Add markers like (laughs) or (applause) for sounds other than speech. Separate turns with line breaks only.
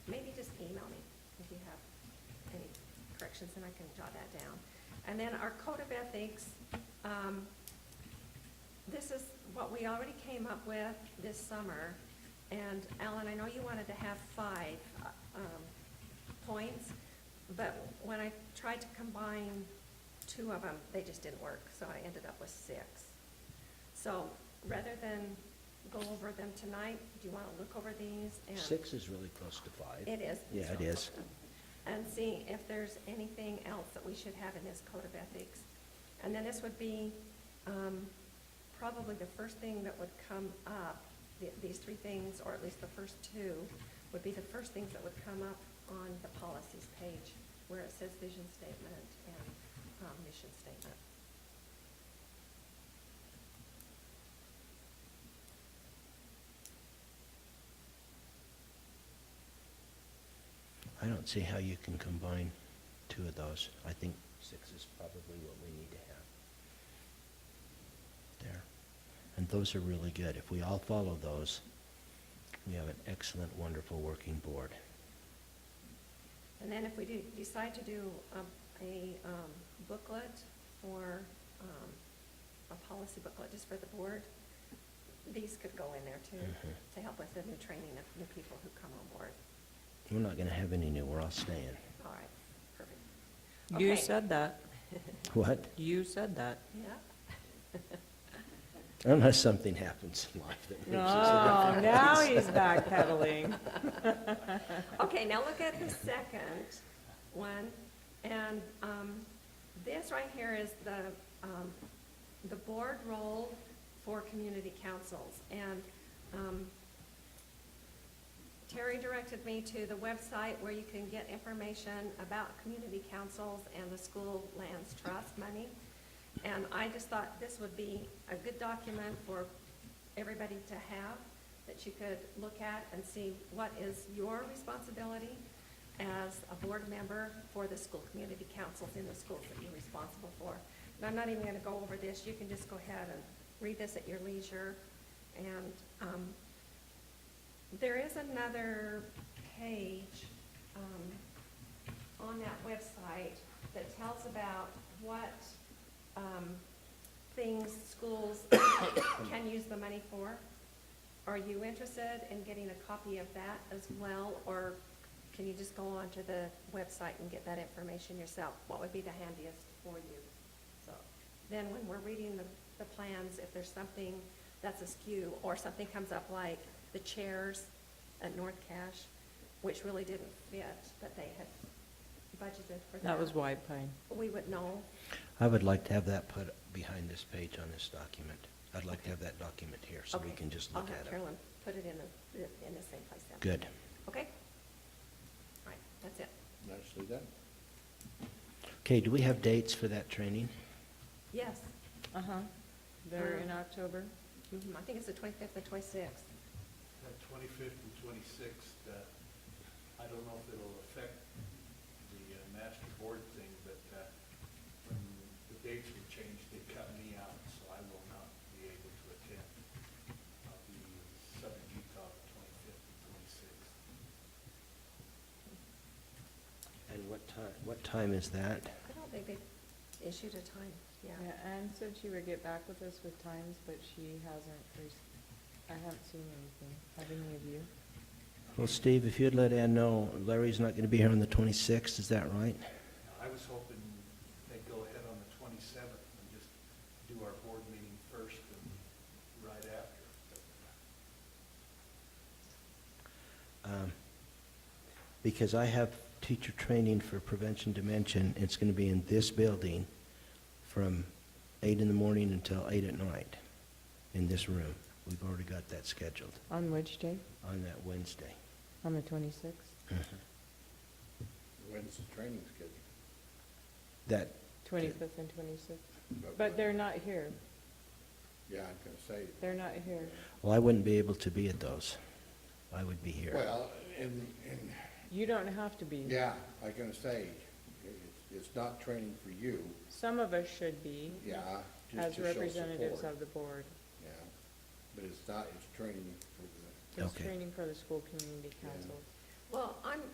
inspections, and I can jot that down. And then our code of ethics, um, this is what we already came up with this summer. And Alan, I know you wanted to have five, uh, um, points, but when I tried to combine two of them, they just didn't work, so I ended up with six. So rather than go over them tonight, do you wanna look over these and?
Six is really close to five.
It is.
Yeah, it is.
And see if there's anything else that we should have in this code of ethics. And then this would be, um, probably the first thing that would come up, th- these three things, or at least the first two, would be the first things that would come up on the policies page, where it says vision statement and, um, mission statement.
I don't see how you can combine two of those. I think six is probably what we need to have. There. And those are really good. If we all follow those, we have an excellent, wonderful working board.
And then if we do, decide to do um, a um, booklet or um, a policy booklet just for the board, these could go in there too,
Mhm.
to help with the new training of new people who come on board.
We're not gonna have any new, we're all staying.
All right, perfect.
You
Okay.
said that.
What?
You said that.
Yeah.
Unless something happens in life that
No,
makes us a different
Oh, now
place.
he's backpedaling.
Okay, now look at the second one, and um, this right here is the, um, the board role for community councils. And um, Terry directed me to the website where you can get information about community councils and the school lands trust money. And I just thought this would be a good document for everybody to have, that you could look at and see what is your responsibility as a board member for the school community councils in the schools that you're responsible for. And I'm not even gonna go over this, you can just go ahead and read this at your leisure. And, um, there is another page, um, on that website that tells about what, um, things schools (coughs) can use the money for. Are you interested in getting a copy of that as well, or can you just go onto the website and get that information yourself? What would be the handiest for you? So, then when we're reading the, the plans, if there's something that's askew, or something comes up like the chairs at North Cache, which really didn't fit, but they had budgeted for that.
(laughs) That was White Pine.
We would know,
I would like to have that put behind this page on this document. I'd like to have that document here, so we
Okay.
can just look
I'll have
at it.
Carolyn put it in the, in the same place then.
Good.
Okay? All right, that's it.
Nicely done.
Okay, do we have dates for that training?
Yes,
Uh-huh. They're in October.
Mhm, I think it's the twenty-fifth and twenty-sixth.
That twenty-fifth and twenty-sixth, uh, I don't know if it'll affect the uh, master board thing, but, uh, when the dates were changed, they cut me out, so I will not be able to attend. I'll be in Southern Utah, twenty-fifth and twenty-sixth.
And what time, what time is that?
I don't think they issued a time, yeah.
Yeah, Anne said she would get back with us with times, but she hasn't, res- I haven't seen anything. Have any of you?
Well, Steve, if you'd let Ann know, Larry's not going to be here on the 26th, is that right?
I was hoping they'd go ahead on the twenty-seventh and just do our board meeting first and right after. But, uh,
Um, Because I have teacher training for prevention dementia, it's going to be in this building from eight in the morning until eight at night, in this room. We've already got that scheduled
On which day?
on that Wednesday.
On the twenty-sixth?
When's the training scheduled?
That,
Twenty-fifth and twenty-sixth? But they're not here.
Yeah, I'm gonna say.
They're not here.
well, I wouldn't be able to be at those. I would be here.
Well, and, and,
You don't have to be.
yeah, I'm gonna say, it- it's not training for you,
Some of us should be.
yeah. just
As
to show
representatives
support,
of the board.
Yeah, but it's not, it's training for the
It's
Okay.
training for the school community
Yeah.
council.
Well, I'm,